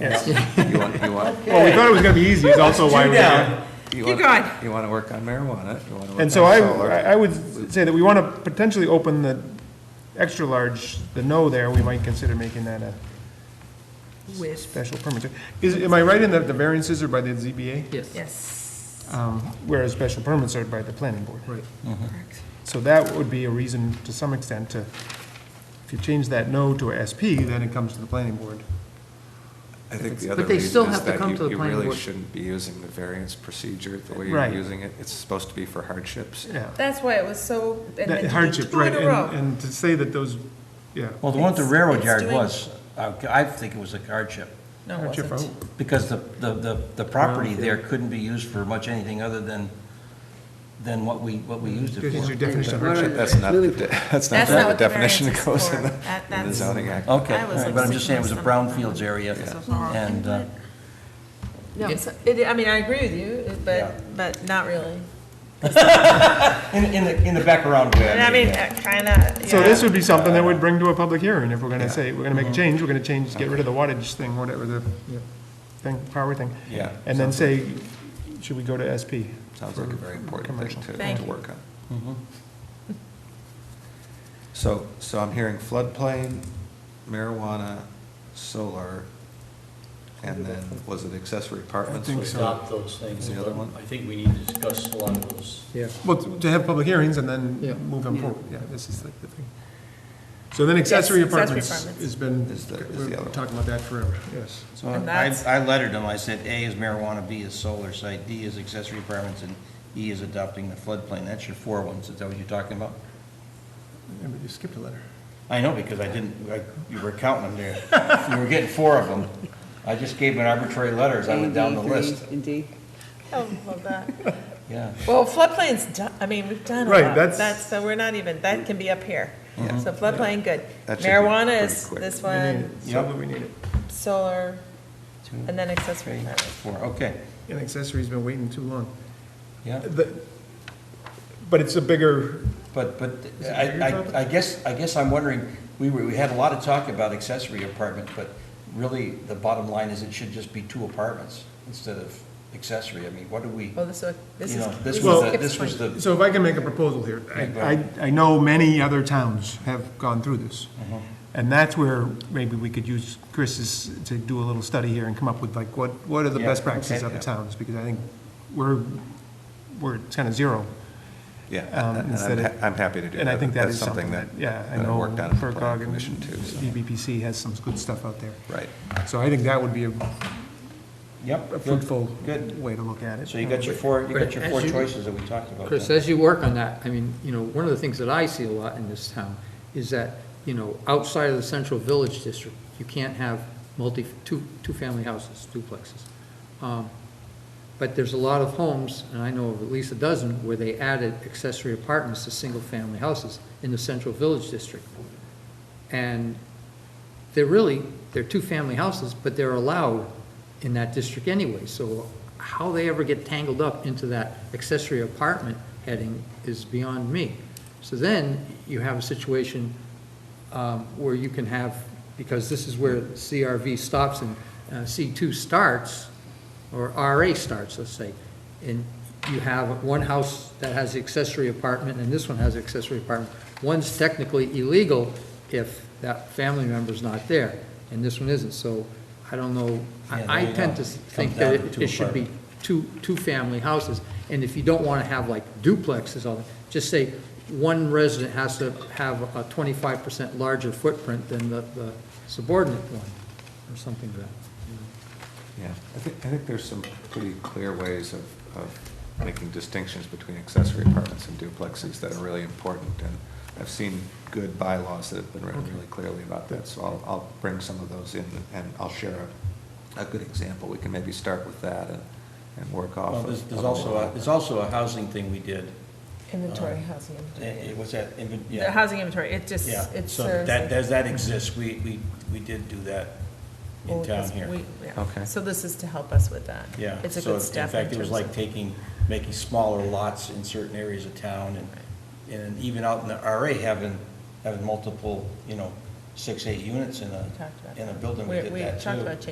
You want, you want. Well, we thought it was gonna be easy, is also why Two we're here. down. you Keep want- going. You want to work on marijuana, you want to work on And so I, solar. I would say that we want to potentially open the extra large, the no there, we might consider making that a with, special permit. Is, am I right in that the variances are by the ZBA? Yes. yes, Um, Whereas special permits are by the planning board. Right. correct. So that would be a reason, to some extent, to, if you change that no to a SP, then it comes to the planning board. I think the But other they still reason is have to that come to you, the you planning really board. shouldn't be using the variance procedure the way you're Right. using it. It's supposed to be for hardships. Yeah. That's why it was so, and That then you did hardship, two right, in a and, row. and to say that those, yeah. Well, the one at the It's- railroad it's yard doing- was, uh, I think it was a hardship, No, it Hardship oh, wasn't. because the, the, the the property there couldn't be used for much anything other than, than what we, what we used This is your it definition of Why don't hardship. you- That's not, the really- de- that's not That's not the what the definition that variance goes is in for. the, That- in the that's- zoning act. for. Oh. Okay, I was all right, like but I'm just saying it was a six months brownfields area, So far. and, uh, No, so- it, I mean, I agree with you, Yeah. but, but not really. in, in the, in the background. way, And I mean, eh, kind of, So this yeah. Mm-hmm. would be something that would bring to a public hearing, if we're gonna say, we're gonna make a change, we're gonna change, get rid of the wattage thing, whatever the thing, power thing. Yeah. And then say, should we go to SP? Sounds like a very important thing Commercial. Mm-hmm. to, Thank to you. work on. So, so I'm hearing floodplain, marijuana, solar, and then, was it accessory apartments? think was- so. adopt those things. The other one? I think we need to discuss a lot of those. Yeah. Well, to have public hearings and then Yeah. move them forward, yeah, this is like the thing. So then accessory Yes, accessory apartments apartments. has been, Is the- is the we're other one. talking about that forever, yes. So And I, that's- I lettered them, I said A is marijuana, B is solar site, D is accessory apartments, and E is adopting the floodplain. That's your four ones, is that what you're talking about? Yeah, but You skipped a letter. I know, because I didn't, I- you were counting them there. You were getting four of them. I just gave them arbitrary letters, I went down the list, Indeed. Oh, love that. yeah. Well, floodplain's done, I mean, we've done a Right, lot. that's- That's, so we're not even, that can be up here. So floodplain, good. That should be Marijuana pretty is quick. this We need it, one, so we need it. solar, Two, and then accessory three, apartments. four, okay, And accessory's been waiting too long. yeah. The- But it's a bigger, But, but Is it bigger, I, Bob? I, I guess, I guess I'm wondering, we were, we had a lot of talk about accessory apartments, but really, the bottom line is it should just be two apartments instead of accessory. I mean, what do we, Well, Oh, this, this you is. know, this we Well- was, the- skipped this was one. the, so if I can make a proposal here, I, I I know many other towns have gone through this. Uh-huh. And that's where maybe we could use Chris's, to do a little study here and come up with like, what, what are the Yeah, best practices okay, of the yeah. towns? Because I think we're, we're kind of zero. Yeah, um, and instead I'm, of- ha- I'm happy to do that. And I think that That's is something that, yeah, I that know worked on at the FERCog planning and E commission too, so, BBPC has some good stuff out there. right. So I think that would be a yep. a good, fruitful Good. way to look at it. So you got your four, you got your four As you- choices that we talked about. Chris, then. as you work on that, I mean, you know, one of the things that I see a lot in this town is that, you know, outside of the central village district, you can't have multi, two, two-family houses, duplexes. Um, But there's a lot of homes, and I know of at least a dozen, where they added accessory apartments to single-family houses in the central village district. And they're really, they're two-family houses, but they're allowed in that district anyway. So how they ever get tangled up into that accessory apartment heading is beyond me. So then you have a situation um, where you can have, because this is where CRV stops and uh, C2 starts, or RA starts, let's say, and you have one house that has the accessory apartment, and this one has the accessory apartment. One's technically illegal if that family member's not there, and this one isn't, so I don't know. Yeah, I I there you tend to go. Comes think down that to it two it should be two, two-family houses, and if you don't want to have like duplexes on, just say one resident has to have a twenty-five percent larger footprint than the the subordinate one, or something like that. Yeah, I think, I think there's some pretty clear ways of, of making distinctions between accessory apartments and duplexes that are really important, and I've seen good bylaws that have been written really clearly about that, so I'll, I'll bring some of those in, and I'll share a, a good example, we can maybe start with that and, and work off. Well, of- there's, there's of also, that. a- there's also a housing thing we did. Inventory, Um, housing Eh, inventory. eh, What's that? Inven- yeah. The housing inventory, it just, Yeah, it serves. so that, like- does that exist? We, we, we did do that in Well, town this- here. we- yeah. Okay. So this is to help us with that. Yeah. It's a so good step. In fact, it terms was of- like taking, making smaller lots in certain areas of town and, and even out in the RA having, having multiple, you know, six, eight units in a, We talked about in a that. building, we We- did that We too. talked about changing